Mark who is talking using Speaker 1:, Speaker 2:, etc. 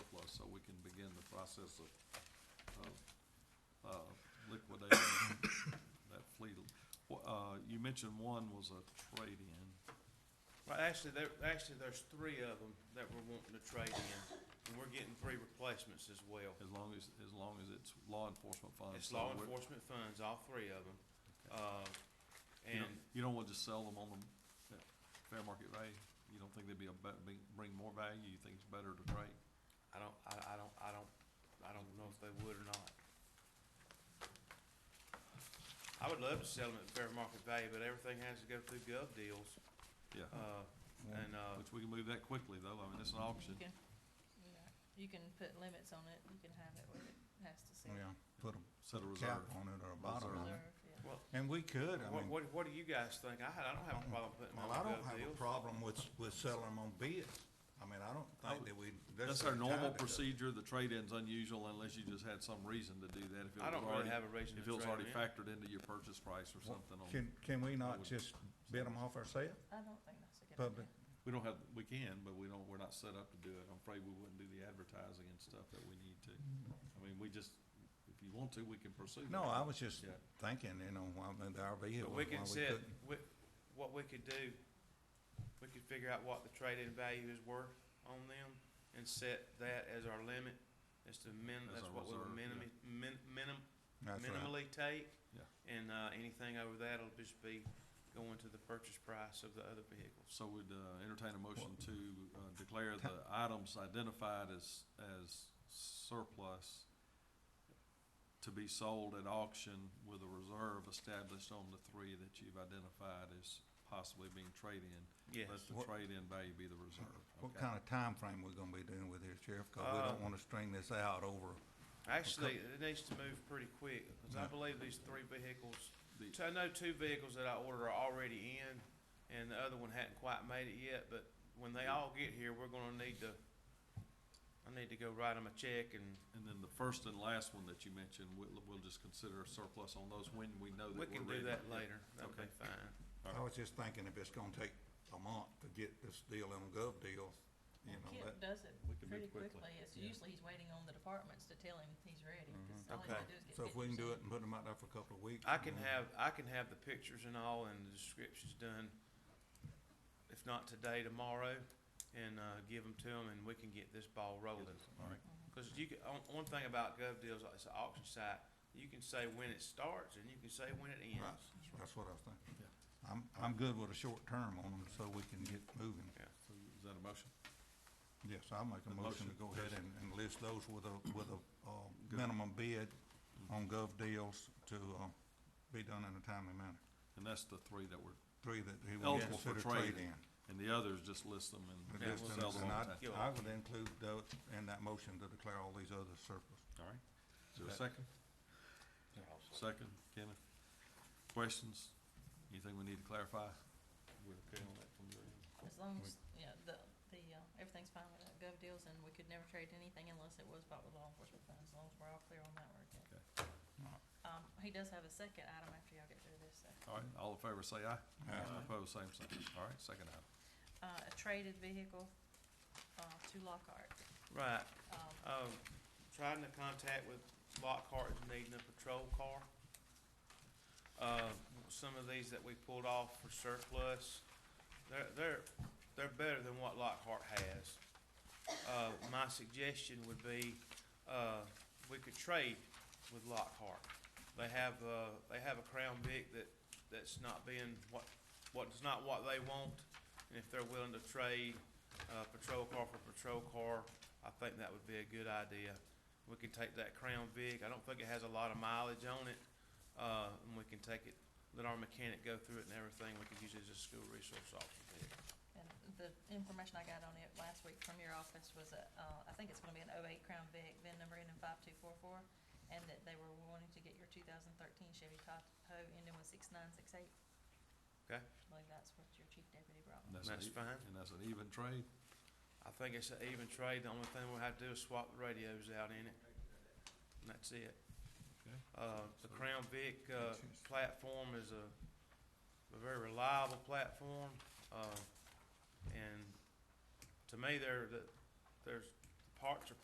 Speaker 1: process of, of, uh, liquidating that fleet. Wha- Uh, you mentioned one was a trade-in.
Speaker 2: Well, actually, there, actually, there's three of them that we're wanting to trade in, and we're getting three replacements as well.
Speaker 1: As long as, as long as it's law enforcement
Speaker 3: Uh,
Speaker 1: funds.
Speaker 2: It's
Speaker 1: so
Speaker 2: law
Speaker 1: we're-
Speaker 2: enforcement funds, all three of them. Uh,
Speaker 1: you don't-
Speaker 2: and
Speaker 1: You don't want to just sell them on the at fair market value? You don't think they'd be a, bet- be- bring more value? You think it's better to trade?
Speaker 2: I don't, I, I don't, I don't, I don't know if they would or not. I would love to sell them at fair market value, but everything has to go through gov deals,
Speaker 1: Yeah,
Speaker 2: uh, and, uh,
Speaker 1: which we can move that quickly though. I mean, it's an auction.
Speaker 4: You can, yeah, you can put limits on it, you can have it where it has to sit.
Speaker 3: Yeah, put
Speaker 1: Set a
Speaker 3: a cap
Speaker 1: reserve.
Speaker 3: on it or a bottom on it.
Speaker 4: Reserve, yeah.
Speaker 3: And we could, I
Speaker 2: what,
Speaker 3: mean,
Speaker 2: what, what do you guys think? I, I don't have a problem putting them
Speaker 3: well,
Speaker 2: on
Speaker 3: I
Speaker 2: gov
Speaker 3: don't
Speaker 2: deals.
Speaker 3: have a problem with, with selling them on bids. I mean, I don't think that we.
Speaker 1: That's our
Speaker 3: necessarily
Speaker 1: normal
Speaker 3: tied to that.
Speaker 1: procedure. The trade-in's unusual unless you just had some reason to do that. If it
Speaker 2: I
Speaker 1: was
Speaker 2: don't
Speaker 1: already-
Speaker 2: really have a reason to
Speaker 1: If it was
Speaker 2: trade
Speaker 1: already
Speaker 2: them in.
Speaker 1: factored into your purchase price or
Speaker 3: Well,
Speaker 1: something on,
Speaker 3: Can, can we
Speaker 1: would-
Speaker 3: not just bid them off ourselves?
Speaker 4: I don't think that's a good
Speaker 3: Public.
Speaker 4: idea.
Speaker 1: we don't have, we can, but we don't, we're not set up to do it. I'm afraid we wouldn't do the advertising and stuff that we need to. I mean, we just, if you want to, we can pursue that.
Speaker 3: No, I was just
Speaker 1: Yeah.
Speaker 3: thinking, you know, while the RV here,
Speaker 2: But we
Speaker 3: why we
Speaker 2: could set,
Speaker 3: couldn't.
Speaker 2: we, what we could do, we could figure out what the trade-in value is worth on them and set that as our limit, as to min,
Speaker 1: As
Speaker 2: that's
Speaker 1: our
Speaker 2: what we
Speaker 1: reserve,
Speaker 2: would
Speaker 1: yeah.
Speaker 2: minimi, min, minim,
Speaker 3: That's right.
Speaker 2: minimally take.
Speaker 1: Yeah.
Speaker 2: And, uh, anything over that'll just be going to the purchase price of the other vehicles.
Speaker 1: So we'd uh, entertain a motion to uh, declare the items identified as, as surplus to be sold at auction with a reserve established on the three that you've identified as possibly being traded in.
Speaker 2: Yes.
Speaker 1: Let the
Speaker 3: What-
Speaker 1: trade-in value be the reserve.
Speaker 3: What
Speaker 1: Okay.
Speaker 3: kind of time frame we gonna be doing with this, Sheriff? Cause we
Speaker 2: Uh,
Speaker 3: don't wanna string this out over,
Speaker 2: Actually, it needs to move pretty quick, because I
Speaker 3: Yeah.
Speaker 2: believe these three vehicles,
Speaker 1: The-
Speaker 2: so I know two vehicles that I ordered are already in, and the other one hadn't quite made it yet, but when they all get here, we're gonna need to, I need to go write them a check and
Speaker 1: And then the first and last one that you mentioned, we'll, we'll just consider a surplus on those when we know that
Speaker 2: we
Speaker 1: we're ready.
Speaker 2: can do that later, that'll be
Speaker 1: Okay.
Speaker 2: fine.
Speaker 1: All
Speaker 3: I was just thinking if it's gonna take a month to get this deal in gov deals, you know,
Speaker 4: Well, Kip
Speaker 3: that,
Speaker 4: does it
Speaker 1: We can
Speaker 4: pretty
Speaker 1: move quickly,
Speaker 4: quickly, it's
Speaker 1: yeah.
Speaker 4: usually he's waiting on the departments to tell him he's ready, 'cause all he's
Speaker 2: Okay.
Speaker 4: gotta do is get
Speaker 3: Mm-hmm. so if we can do
Speaker 4: pictures
Speaker 3: it and put them out there for a couple of weeks.
Speaker 2: I
Speaker 3: you
Speaker 2: can
Speaker 3: know,
Speaker 2: have, I can have the pictures and all and the descriptions done, if not today, tomorrow, and, uh, give them to them, and we can get this ball rolling.
Speaker 1: All right.
Speaker 4: Mm-hmm.
Speaker 2: Because you can, on, one thing about gov deals, it's an auction site, you can say when it starts and you can say when it ends.
Speaker 3: Right, that's what I was thinking. I'm, I'm good with a short term on them so we can get moving.
Speaker 1: So Is that a motion?
Speaker 3: Yes, I'll make
Speaker 1: A
Speaker 3: a motion to
Speaker 1: motion,
Speaker 3: go ahead and, and list those with a, with a, uh, minimum bid on
Speaker 1: Mm-hmm.
Speaker 3: gov deals to, uh, be done in a timely manner.
Speaker 1: And that's the three that were,
Speaker 3: Three that he would
Speaker 1: Eligible for
Speaker 3: consider
Speaker 1: trade.
Speaker 3: trade-in.
Speaker 1: and the others, just list them and
Speaker 3: The
Speaker 2: Yeah, we'll
Speaker 1: sell
Speaker 3: distance,
Speaker 1: them
Speaker 3: and
Speaker 1: on
Speaker 3: I,
Speaker 1: time.
Speaker 2: Yeah.
Speaker 3: I would include those in that motion to declare all these others surplus.
Speaker 1: All right, is there a
Speaker 3: That-
Speaker 1: second? Second, Kenneth? Questions? Anything we need to clarify? We're okay on that from your end?
Speaker 4: done. As long as, yeah, the, the, uh, everything's fine with that gov deals, and we could never trade anything unless it was bought with law enforcement funds, as long as we're all clear on that, we're good. Um, he does have a second item after y'all get through this, so.
Speaker 1: All right, all in favor, say aye.
Speaker 3: Aye.
Speaker 1: Opposed, same sign. All right, second item.
Speaker 4: uh, a traded vehicle, uh, to Lockhart.
Speaker 2: Right,
Speaker 4: Um,
Speaker 2: um, trying to contact with Lockhart is needing a patrol car. Uh, some of these that we pulled off for surplus, they're, they're, they're better than what Lockhart has. Uh, my suggestion would be, uh, we could trade with Lockhart. They have, uh, they have a Crown Vic that, that's not being what, what's not what they want. And if they're willing to trade, uh, patrol car for patrol car, I think that would be a good idea. We can take that Crown Vic, I don't think it has a lot of mileage on it, uh, and we can take it, let our mechanic go through it and everything, we could use it as a school resource officer vehicle.
Speaker 4: And the information I got on it last week from your office was, a, uh, I think it's gonna be an oh-eight Crown Vic, VIN number ending five-two-four-four, and that they were wanting to get your two thousand thirteen Chevy Tahoe ending with six-nine-six-eight.
Speaker 2: Okay.
Speaker 4: I believe that's what your chief deputy brought.
Speaker 1: And an
Speaker 2: That's
Speaker 1: e-
Speaker 2: fine.
Speaker 1: And that's an even trade.
Speaker 2: I think it's an even trade, the only thing we'll have to do is swap the radios out in it, and that's it.
Speaker 1: Okay.
Speaker 2: Uh, the Crown Vic, uh, platform is a, a very reliable platform, uh, and to me, they're, the- there's, the parts are